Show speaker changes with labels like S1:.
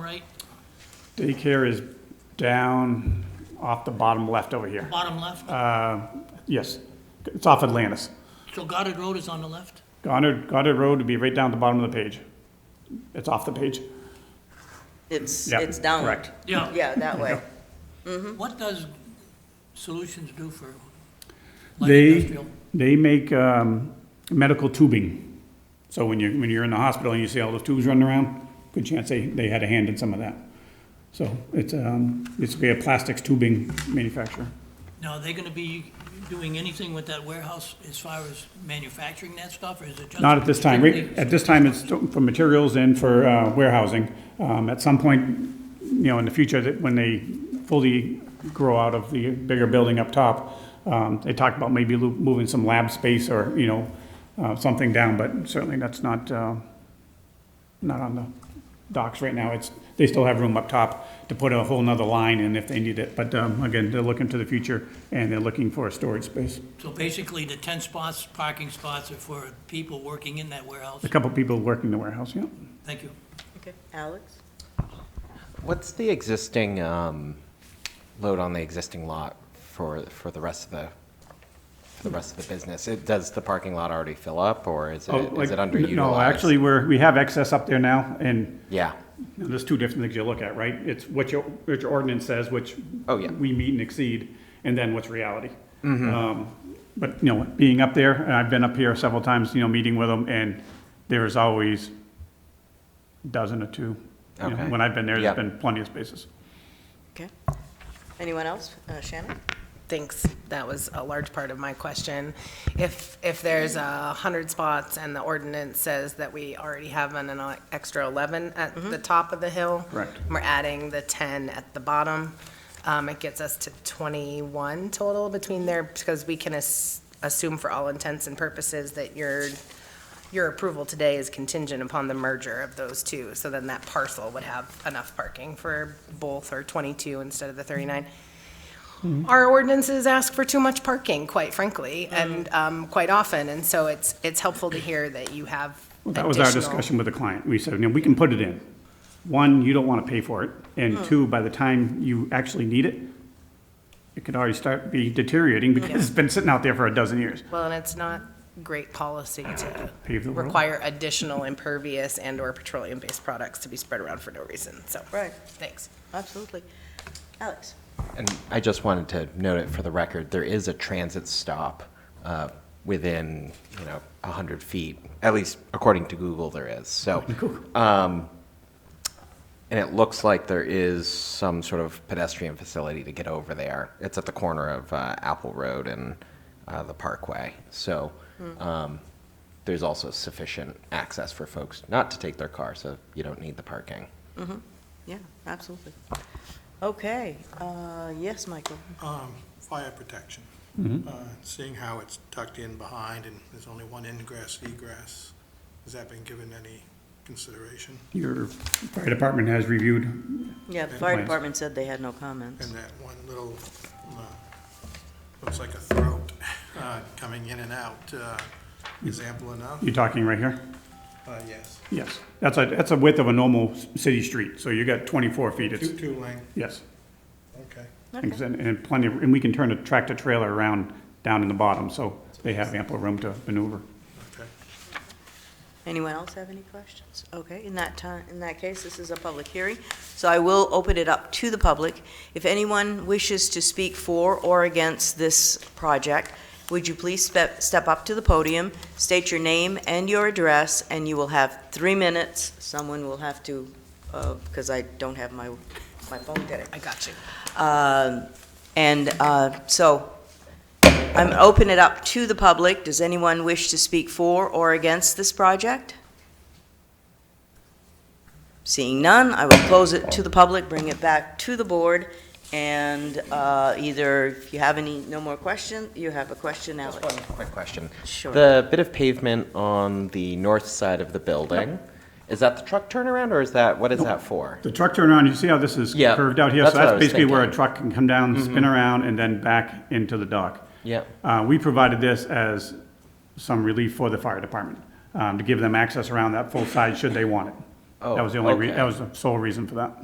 S1: Daycare is down off the bottom left over here.
S2: Bottom left,
S1: Uh, Yes, it's off Atlantis.
S2: so Goddard Road is on the left?
S1: Goddard, Goddard Road would be right down at the bottom of the page. It's off the page.
S3: It's,
S1: Yeah,
S3: it's downward.
S1: correct.
S2: Yeah.
S3: Yeah, that way.
S2: What does Solutions do for light
S1: They,
S2: industrial?
S1: they make um, medical tubing. So when you're, when you're in the hospital and you see all those tubes running around, good chance they, they had a hand in some of that. So it's, um, it's be a plastics tubing manufacturer.
S2: Now, are they gonna be doing anything with that warehouse as far as manufacturing that stuff, or is it just?
S1: Not at this time. Right-
S2: strictly-
S1: At this time, it's for materials and for uh, warehousing. Um, At some point, you know, in the future, that when they fully grow out of the bigger building up top, um, they talk about maybe lo- moving some lab space or, you know, uh, something down, but certainly that's not, uh, not on the docks right now. It's, they still have room up top to put a whole nother line in if they need it. But um, again, they're looking to the future and they're looking for a storage space.
S2: So basically, the ten spots, parking spots are for people working in that warehouse?
S1: A couple people working the warehouse, yeah.
S2: Thank you.
S3: Okay. Alex?
S4: What's the existing um, load on the existing lot for, for the rest of the, for the rest of the business? It, does the parking lot already fill up, or is it,
S1: Oh, like,
S4: is it
S1: n-
S4: underutilized?
S1: No, actually, we're, we have excess up there now, and
S4: Yeah,
S1: there's two different things you look at, right? It's what your, what your ordinance says, which.
S4: Oh, yeah. Mm-hmm.
S1: We meet and exceed, and then what's reality. Um, But, you know, being up there, and I've been up here several times, you know, meeting with them, and there is always dozen or two. You know,
S4: Okay.
S1: When I've been there,
S4: Yeah.
S1: there's been plenty of spaces.
S3: Okay. Anyone else? Uh, Shannon?
S5: Thanks. That was a large part of my question. If, if there's a hundred spots and the ordinance says that we already have an, an extra eleven at the top of the hill.
S1: Correct.
S5: We're adding the ten at the bottom. Um, it gets us to twenty-one total between there because we can as- assume for all intents and purposes that your, your approval today is contingent upon the merger of those two. So then that parcel would have enough parking for both or twenty-two instead of the thirty-nine. Our ordinances ask for too much parking, quite frankly, and um, quite often, and so it's, it's helpful to hear that you have
S1: Well, That was our
S5: additional-
S1: discussion with the client. We said, you know, we can put it in. One, you don't want to pay for it, and two, by the time you actually need it, it could already start be deteriorating because it's been sitting out there for a dozen years.
S5: Well, and it's not great policy to
S1: Pave the world.
S5: require additional impervious and/or petroleum-based products to be spread around for no reason, so.
S3: Right.
S5: Thanks.
S3: Absolutely. Alex?
S4: and I just wanted to note it for the record, there is a transit stop uh, within, you know, 100 feet, at least according to Google there is, so. um, And it looks like there is some sort of pedestrian facility to get over there. It's at the corner of uh, Apple Road and uh, the Parkway. So um, there's also sufficient access for folks not to take their car, so you don't need the parking.
S3: Yeah, absolutely. Okay, uh, yes, Michael?
S6: Um, Fire protection. Uh, Seeing how it's tucked in behind and there's only one ingress, egress, has that been given any consideration?
S1: Your fire department has reviewed,
S3: Yeah, the fire
S1: Plans.
S3: department said they had no comments.
S6: And that one little, uh, looks like a throat uh, coming in and out uh, is ample enough?
S1: you talking right here?
S6: Uh, Yes.
S1: Yes. That's a, that's a width of a normal s- city street, so you got 24 feet. It's,
S6: Two, two lane,
S1: yes.
S6: okay.
S1: And and plenty, of- and we can turn a tractor trailer around down in the bottom, so they have ample room to maneuver.
S6: Okay.
S3: Anyone else have any questions? Okay, in that time, in that case, this is a public hearing, so I will open it up to the public. If anyone wishes to speak for or against this project, would you please step, step up to the podium, state your name and your address, and you will have three minutes. Someone will have to, uh, because I don't have my, my phone today.
S5: I got you.
S3: Um, And uh, so I'm open it up to the public. Does anyone wish to speak for or against this project? Seeing none, I will close it to the public, bring it back to the board, and uh, either, if you have any, no more question, you have a question, Alex.
S4: One quick question.
S3: Sure.
S4: The bit of pavement on the north side of the building, is that the truck turnaround, or is that, what is that for?
S1: The truck turnaround, you see how this is
S4: Yeah,
S1: curved out here?
S4: that's
S1: So
S4: what I
S1: that's
S4: was
S1: basically where a
S4: thinking. Mm-hmm.
S1: truck can come down, spin around, and then back into the dock.
S4: Yeah.
S1: Uh, we provided this as some relief for the fire department, um, to give them access around that full side should they want it.
S4: Oh,
S1: That was the only, re-
S4: okay.
S1: that was the sole reason for that.